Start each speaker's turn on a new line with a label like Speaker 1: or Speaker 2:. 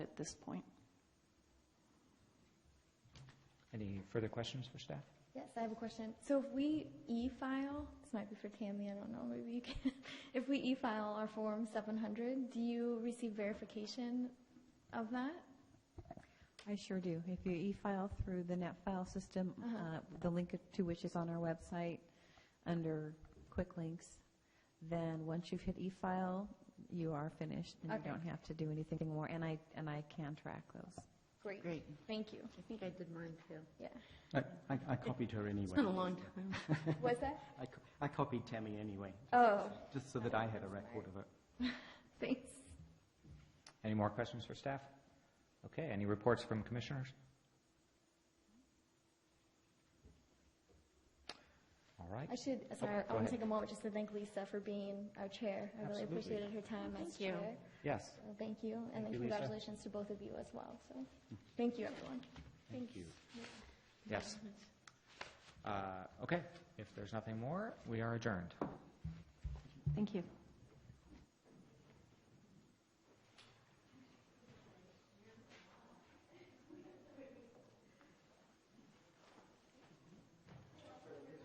Speaker 1: this point.
Speaker 2: Any further questions for staff?
Speaker 3: Yes, I have a question. So if we e-file, this might be for Tammy, I don't know, maybe you can. If we e-file our Form 700, do you receive verification of that?
Speaker 4: I sure do. If you e-file through the NetFile system, uh, the link to which is on our website under Quick Links, then once you've hit e-file, you are finished and
Speaker 3: Okay.
Speaker 4: you don't have to do anything more. And I, and I can track those.
Speaker 3: Great.
Speaker 5: Great.
Speaker 3: Thank you.
Speaker 5: I think I did mine too.
Speaker 3: Yeah.
Speaker 2: I, I I copied her anyway.
Speaker 5: It's been a long time.
Speaker 3: Was that?
Speaker 2: I co- I copied Tammy anyway,
Speaker 3: Oh,
Speaker 2: just so that I had a record of it.
Speaker 3: thanks.
Speaker 2: Any more questions for staff? Okay, any reports from commissioners? All right.
Speaker 3: I should, sorry, I
Speaker 2: go
Speaker 3: want
Speaker 2: ahead.
Speaker 3: to take a moment just to thank Lisa for being our chair. I really
Speaker 2: Absolutely.
Speaker 3: appreciated her time as
Speaker 5: you.
Speaker 3: chair.
Speaker 2: Yes.
Speaker 3: So Thank you, and then
Speaker 2: you, Lisa.
Speaker 3: congratulations to both of you as well. So, thank you, everyone.
Speaker 2: Thank you. Yes. Uh, Okay, if there's nothing more, we are adjourned.
Speaker 4: Thank you.